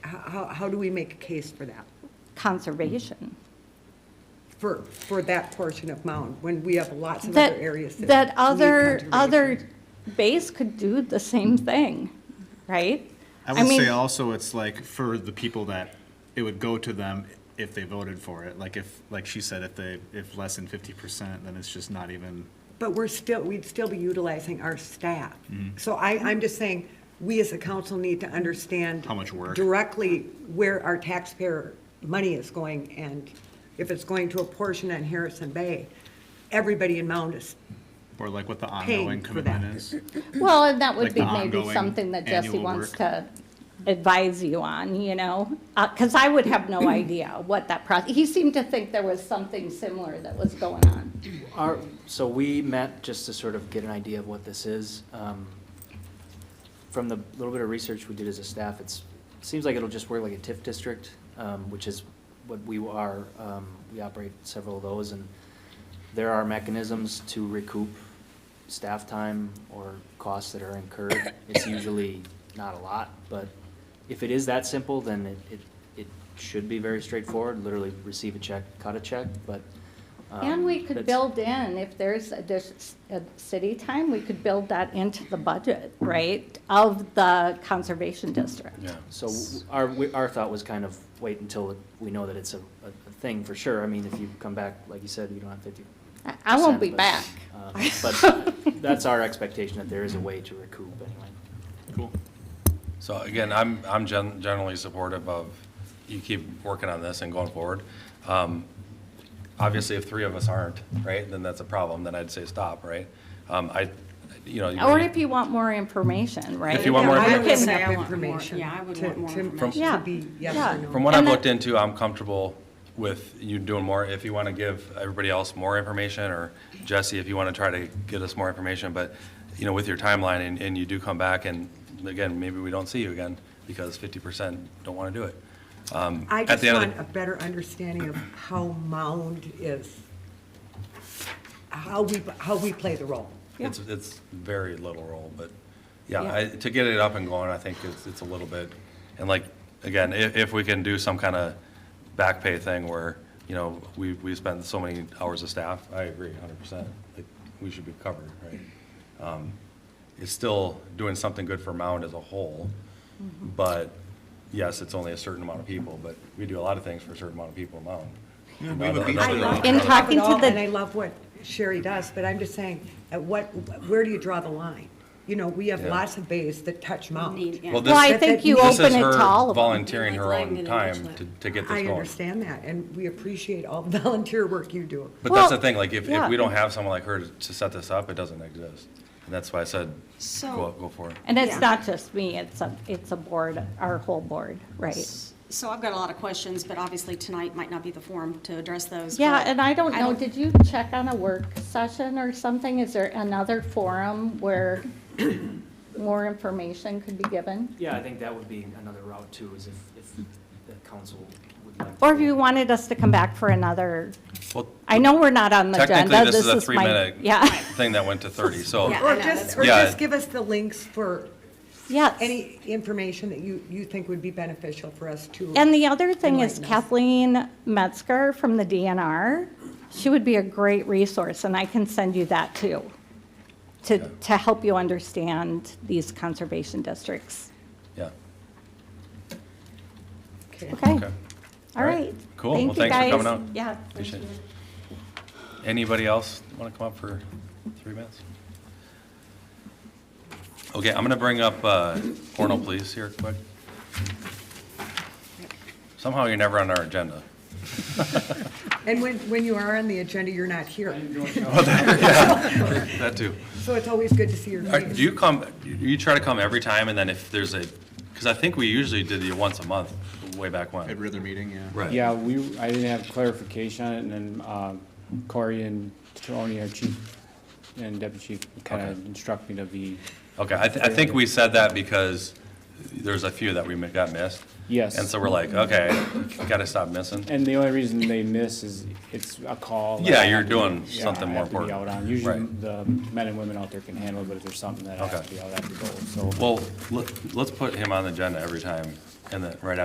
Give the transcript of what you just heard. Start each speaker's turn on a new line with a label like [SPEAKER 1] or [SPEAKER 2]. [SPEAKER 1] how, how do we make a case for that?
[SPEAKER 2] conservation.
[SPEAKER 1] For, for that portion of Mound, when we have lots of
[SPEAKER 2] That-
[SPEAKER 1] other areas that.
[SPEAKER 2] That
[SPEAKER 1] need
[SPEAKER 2] other,
[SPEAKER 1] conservation?
[SPEAKER 2] other base could do the same thing, right?
[SPEAKER 3] I would
[SPEAKER 2] mean,
[SPEAKER 3] say also it's like for the people that it would go to them if they voted for it. Like if, like she said, if they, if less than fifty percent, then it's just not even.
[SPEAKER 1] But we're still, we'd still be utilizing our staff. So I, I'm just saying, we as a council need to understand.
[SPEAKER 3] How much work.
[SPEAKER 1] Directly where our taxpayer money is going and if it's going to a portion on Harrison Bay, everybody in Mound is,
[SPEAKER 3] Or like what the
[SPEAKER 1] Paying
[SPEAKER 3] ongoing
[SPEAKER 1] for that.
[SPEAKER 3] commitment is.
[SPEAKER 2] Well, and that would
[SPEAKER 3] like
[SPEAKER 2] be
[SPEAKER 3] the
[SPEAKER 2] maybe
[SPEAKER 3] ongoing
[SPEAKER 2] something that Jesse
[SPEAKER 3] annual
[SPEAKER 2] wants
[SPEAKER 3] work.
[SPEAKER 2] to advise you on, you know? Because I would have no idea what that process, he seemed to think there was something similar that was going on.
[SPEAKER 4] Our, so we met just to sort of get an idea of what this is. Um, From the little bit of research we did as a staff, it's, seems like it'll just work like a TIF district, um, which is what we are, um, we operate several of those, and there are mechanisms to recoup staff time or costs that are incurred. It's usually not a lot, but if it is that simple, then it, it, it should be very straightforward, literally receive a check, cut a check, but. um,
[SPEAKER 2] And we could
[SPEAKER 4] that's-
[SPEAKER 2] build in, if there's a, dis- a city time, we could build that into the budget, right? Of the conservation district.
[SPEAKER 4] So w- our, we- our thought was kind of wait until we know that it's a, a a thing for sure. I mean, if you come back, like you said, you don't have fifty. uh,
[SPEAKER 2] I- I won't be back.
[SPEAKER 4] But that's our expectation, that there is a way to recoup anyway.
[SPEAKER 3] Cool.
[SPEAKER 5] So again, I'm, I'm gen- generally supportive of you keep working on this and going forward. Um, Obviously, if three of us aren't, right, then that's a problem, then I'd say stop, right? Um, I, you know.
[SPEAKER 2] Or if you want more information, right?
[SPEAKER 5] If you want more
[SPEAKER 1] I would
[SPEAKER 5] information.
[SPEAKER 1] have
[SPEAKER 6] Yeah, I want more-
[SPEAKER 1] information.
[SPEAKER 6] yeah, I would
[SPEAKER 1] to-
[SPEAKER 6] want more
[SPEAKER 1] to-
[SPEAKER 6] information.
[SPEAKER 2] Yeah.
[SPEAKER 1] To be yes
[SPEAKER 2] Yeah.
[SPEAKER 1] or no.
[SPEAKER 5] From what
[SPEAKER 2] And
[SPEAKER 5] I've
[SPEAKER 2] that-
[SPEAKER 5] looked into, I'm comfortable with you doing more. If you want to give everybody else more information, or Jesse, if you want to try to get us more information, but, you know, with your timeline, and, and you do come back, and again, maybe we don't see you again, because fifty percent don't want to do it.
[SPEAKER 1] I
[SPEAKER 5] at
[SPEAKER 1] just
[SPEAKER 5] the end of
[SPEAKER 1] want a better understanding of how Mound is, how we, how we play the role.
[SPEAKER 5] It's, it's very little role, but, yeah, I, to get it up and going, I think it's, it's a little bit, and like, again, if, if we can do some kind of back pay thing where, you know, we, we spend so many hours of staff, I agree hundred percent, like, we should be covered, right? Um, It's still doing something good for Mound as a whole, but, yes, it's only a certain amount of people, but we do a lot of things for a certain amount of people in Mound.
[SPEAKER 3] we would be-
[SPEAKER 1] I love-
[SPEAKER 2] In
[SPEAKER 1] I love
[SPEAKER 2] talking
[SPEAKER 1] it
[SPEAKER 2] to
[SPEAKER 1] all,
[SPEAKER 2] the-
[SPEAKER 1] And I love what Sherry does, but I'm just saying, at what, where do you draw the line? You know, we have
[SPEAKER 5] Yeah.
[SPEAKER 1] lots of bays that touch Mound.
[SPEAKER 6] Need- yeah.
[SPEAKER 5] Well,
[SPEAKER 2] Well, I
[SPEAKER 5] this-
[SPEAKER 2] think you
[SPEAKER 5] This is
[SPEAKER 2] open it to all
[SPEAKER 5] her
[SPEAKER 2] of them.
[SPEAKER 5] volunteering her own time to, to get this
[SPEAKER 1] I
[SPEAKER 5] going.
[SPEAKER 1] understand that, and we appreciate all the volunteer work you do.
[SPEAKER 5] But that's the
[SPEAKER 2] Well,
[SPEAKER 5] thing, like, if,
[SPEAKER 2] yeah.
[SPEAKER 5] if we don't have someone like her to- to set this up, it doesn't exist. And that's why I said, go,
[SPEAKER 6] So-
[SPEAKER 5] go for it.
[SPEAKER 2] And it's
[SPEAKER 6] Yeah.
[SPEAKER 2] not just me, it's a, it's a board, our whole board, right?
[SPEAKER 6] So I've got a lot of questions, but obviously tonight might not be the forum to address those.
[SPEAKER 2] Yeah,
[SPEAKER 6] but
[SPEAKER 2] and I don't
[SPEAKER 6] I
[SPEAKER 2] know,
[SPEAKER 6] don't-
[SPEAKER 2] did you check on a work session or something? Is there another forum where more information could be given?
[SPEAKER 4] Yeah, I think that would be another route too, is if, if the council would like. to-
[SPEAKER 2] Or if you wanted us to come back for another,
[SPEAKER 5] Well,
[SPEAKER 2] I know we're not on the agenda.
[SPEAKER 5] technically, this is a
[SPEAKER 2] my-
[SPEAKER 5] three-minute
[SPEAKER 2] Yeah,
[SPEAKER 5] thing that went to thirty, so,
[SPEAKER 6] Yeah.
[SPEAKER 1] Or
[SPEAKER 6] know,
[SPEAKER 1] just,
[SPEAKER 6] that's
[SPEAKER 1] or
[SPEAKER 5] Yeah.
[SPEAKER 1] just give us the links for
[SPEAKER 2] yes.
[SPEAKER 1] any information that you, you think would be beneficial for us to.
[SPEAKER 2] And the other thing is
[SPEAKER 1] Enlighten us.
[SPEAKER 2] Kathleen Metzger from the DNR, she would be a great resource, and I can send you that too, to, to help you understand these conservation districts.
[SPEAKER 5] yeah.
[SPEAKER 1] Okay.
[SPEAKER 2] Okay,
[SPEAKER 5] Okay.
[SPEAKER 2] all right.
[SPEAKER 5] Cool. Well,
[SPEAKER 2] Thank you,
[SPEAKER 5] thanks for
[SPEAKER 2] guys.
[SPEAKER 5] coming out.
[SPEAKER 2] Yeah.
[SPEAKER 5] Appreciate it. Anybody else want to come up for three minutes? Okay, I'm going to bring up uh, Cornell Police here quick. Somehow you're never on our agenda.
[SPEAKER 1] And when, when you are on the agenda, you're not here,
[SPEAKER 5] That too.
[SPEAKER 1] so it's always good to see your
[SPEAKER 5] All right,
[SPEAKER 1] face.
[SPEAKER 5] Do you come, you try to come every time, and then if there's a, because I think we usually did it once a month, way back
[SPEAKER 3] At
[SPEAKER 5] when.
[SPEAKER 3] Rither meeting, yeah.
[SPEAKER 5] Right.
[SPEAKER 7] Yeah, we, I didn't have clarification on it, and then uh, Corey and Tony, our chief and deputy chief, kind
[SPEAKER 5] Okay.
[SPEAKER 7] of instruct me to be,
[SPEAKER 5] Okay, I, th- I think we said that because there's a few that we mi- got missed.
[SPEAKER 7] Yes.
[SPEAKER 5] And so we're like, okay, gotta stop missing.
[SPEAKER 7] and the only reason they miss is it's a call. that I
[SPEAKER 5] Yeah, you're
[SPEAKER 7] have to be-
[SPEAKER 5] doing
[SPEAKER 7] yeah,
[SPEAKER 5] something
[SPEAKER 7] I
[SPEAKER 5] more
[SPEAKER 7] have to be
[SPEAKER 5] important.
[SPEAKER 7] out on. Usually
[SPEAKER 5] Right.
[SPEAKER 7] the men and women out there can handle it, but if there's something that I have
[SPEAKER 5] Okay.
[SPEAKER 7] to be out, I have to go, so.
[SPEAKER 5] Well, let, let's put him on the agenda every time, and then, right